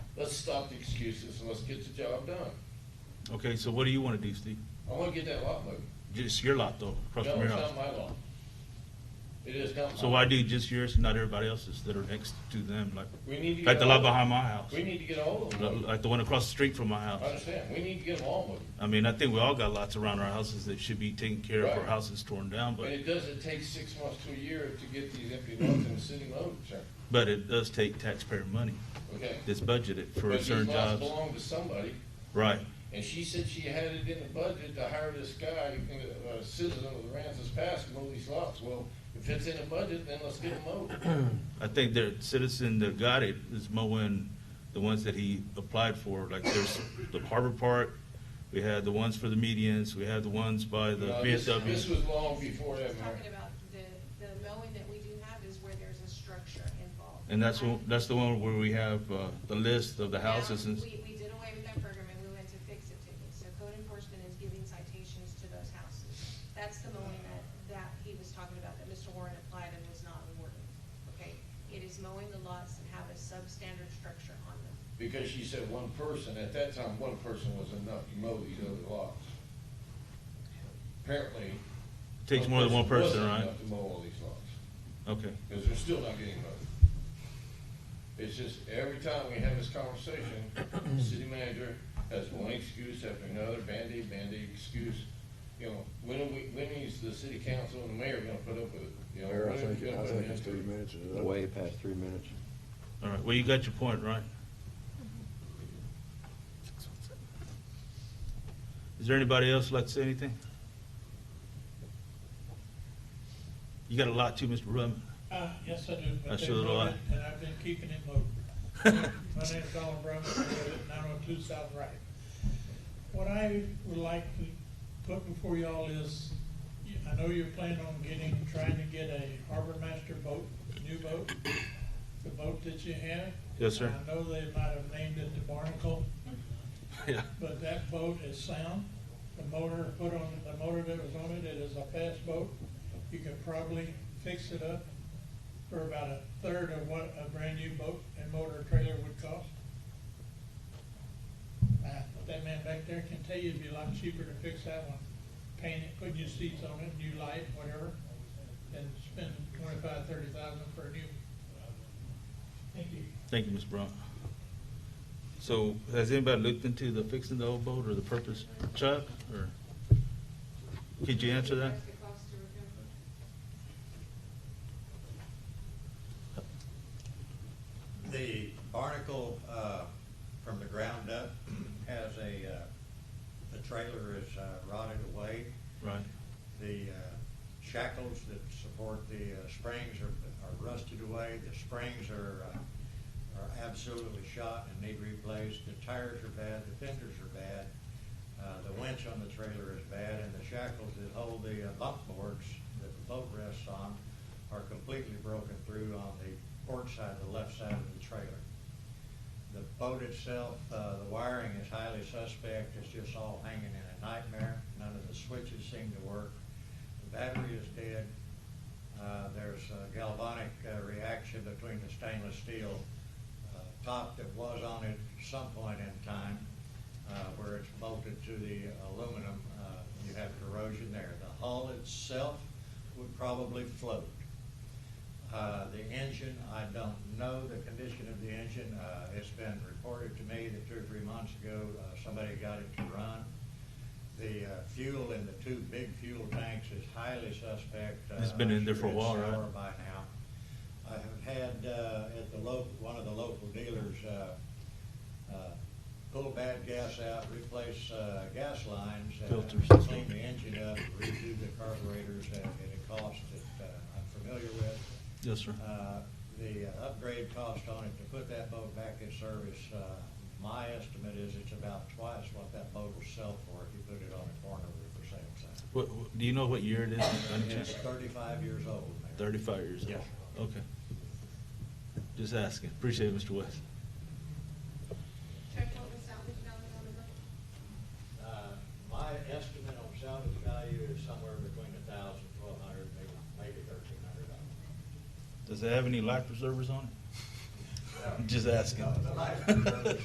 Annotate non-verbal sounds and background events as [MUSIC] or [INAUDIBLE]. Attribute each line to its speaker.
Speaker 1: Let's stop the excuses and let's get the job done.
Speaker 2: Okay, so what do you want to do, Steve?
Speaker 1: I wanna get that lot moved.
Speaker 2: Just your lot though, across
Speaker 1: No,
Speaker 2: from your
Speaker 1: it's
Speaker 2: house.
Speaker 1: not my lot. It is not my.
Speaker 2: So why do just yours and not everybody else's that are next to them, like,
Speaker 1: We need to.
Speaker 2: like
Speaker 1: get
Speaker 2: the lot
Speaker 1: all of
Speaker 2: behind my
Speaker 1: them.
Speaker 2: house?
Speaker 1: We need to get all of them.
Speaker 2: Li-
Speaker 1: moved.
Speaker 2: Like the one across the street from my
Speaker 1: I
Speaker 2: house?
Speaker 1: understand. We need to get them all moved.
Speaker 2: I mean, I think we all got lots around our houses that should be taken care of or
Speaker 1: Right.
Speaker 2: houses torn down,
Speaker 1: And
Speaker 2: but,
Speaker 1: it doesn't take six months to a year to get these empty lots in the city load, sir,
Speaker 2: but it does take taxpayer money
Speaker 1: okay?
Speaker 2: that's budgeted for
Speaker 1: But these
Speaker 2: certain
Speaker 1: lots
Speaker 2: jobs.
Speaker 1: Belong to somebody,
Speaker 2: Right,
Speaker 1: and she said she had it in the budget to hire this guy, uh, a citizen of the Ramses Pass, to mow these lots. Well, if it's in the budget, then let's get them mowed.
Speaker 2: I think the citizen that got it is mowing the ones that he applied for, like there's the Harbor Park, we had the ones for the medians, we had the ones by the
Speaker 1: No, this- This
Speaker 2: BSW.
Speaker 1: was long before that, Mayor.
Speaker 3: Talking about the, the mowing that we do have is where there's a structure involved.
Speaker 2: And that's, one- that's the one where we have, uh, the list of the
Speaker 3: Now,
Speaker 2: houses and,
Speaker 3: We, we did away with that program and we went to fix-it tickets, so code enforcement is giving citations to those houses. That's the mowing that, that he was talking about, that Mr. Warren applied and was not awarded, okay? It is mowing the lots that have a substandard structure on them.
Speaker 1: Because she said one person, at that time, one person was enough to mow these other lots. Apparently.
Speaker 2: takes more than one person,
Speaker 1: wasn't
Speaker 2: right?
Speaker 1: enough To mow all these lots.
Speaker 2: Okay,
Speaker 1: because they're still not getting voted. It's just every time we have this conversation, the city manager has one excuse after another, Band-Aid, Band-Aid excuse. You know, when are we, when is the city council and the mayor gonna put up with it? You know,
Speaker 4: Mayor, I
Speaker 1: when are we
Speaker 4: think,
Speaker 1: gonna
Speaker 4: I
Speaker 1: put
Speaker 4: think
Speaker 1: an
Speaker 4: it's
Speaker 1: end to
Speaker 4: three
Speaker 1: it?
Speaker 4: minutes. is it not?
Speaker 5: Way past three minutes.
Speaker 2: all right, well, you got your point, right? Is there anybody else who'd like to say anything? You got a lot too, Mr. Rubman.
Speaker 6: Uh, yes, I do. but
Speaker 2: I
Speaker 6: they
Speaker 2: sure do.
Speaker 6: voted, And I've been keeping it
Speaker 2: [LAUGHS]
Speaker 6: moving. My name is Donald Brown, I live at nine oh two South Wright. What I would like to put before y'all is, you- I know you're planning on getting, trying to get a harbor master boat, new boat, the boat that you have.
Speaker 2: Yes, sir.
Speaker 6: I know they might have named it the Barnacle,
Speaker 2: Yeah.
Speaker 6: but that boat is sound. The motor put on, the motor that was on it, it is a fast boat. You can probably fix it up for about a third of what a brand-new boat and motor trailer would cost. Uh, That man back there can tell you it'd be a lot cheaper to fix that one, paint it, put new seats on it, new light, whatever, than spend twenty-five, thirty thousand for a new. one. Thank you.
Speaker 2: Thank you, Ms. Brown. So has anybody looked into the fixing the old boat or the purpose, Chuck, or? Could you answer that?
Speaker 3: That's the cost to repair.
Speaker 7: The barnacle, uh, from the ground up has a, uh, the trailer is uh, rotted away.
Speaker 2: Right,
Speaker 7: The uh, shackles that support the uh, springs are are rusted away. The springs are, uh, are absolutely shot and need replaced. The tires are bad, the fenders are bad. Uh, The winch on the trailer is bad and the shackles that hold the uh, bump boards that the boat rests on are completely broken through on the port side, the left side of the trailer. The boat itself, uh, the wiring is highly suspect, it's just all hanging in a nightmare, none of the switches seem to work. The battery is dead, uh, there's a galvanic uh, reaction between the stainless steel uh, top that was on it some point in time, uh, where it's bolted to the aluminum, uh, you have corrosion there. The hull itself would probably float. Uh, The engine, I don't know the condition of the engine. Uh, It's been reported to me that two or three months ago, uh, somebody got it to run. The uh, fuel in the two big fuel tanks is highly suspect. Uh,
Speaker 2: It's been in there for a
Speaker 7: I'm
Speaker 2: while,
Speaker 7: sure it's
Speaker 2: right?
Speaker 7: sour By now. I have had uh, at the local, one of the local dealers, uh, uh, pull bad gas out, replace uh, gas lines. uh,
Speaker 2: Filters.
Speaker 7: Clean the engine up, redo the carburetors at at a cost that uh, I'm familiar with.
Speaker 2: yes, sir.
Speaker 7: Uh, The uh, upgrade cost on it to put that boat back in service, uh, my estimate is it's about twice what that boat will sell for if you put it on a corner with for sale sign.
Speaker 2: What, what- do you know what year it is? by any
Speaker 7: It's
Speaker 2: chance?
Speaker 7: thirty-five years old, Mayor.
Speaker 2: Thirty-five years old?
Speaker 7: Yes.
Speaker 2: Okay. Just asking. Appreciate it, Mr. West.
Speaker 3: Chuck, what was salvage value on the boat?
Speaker 7: Uh, My estimate on salvage value is somewhere between a thousand, twelve hundred, maybe, maybe thirteen hundred dollars.
Speaker 2: Does it have any life preservers on it? Just asking.
Speaker 7: The life preservers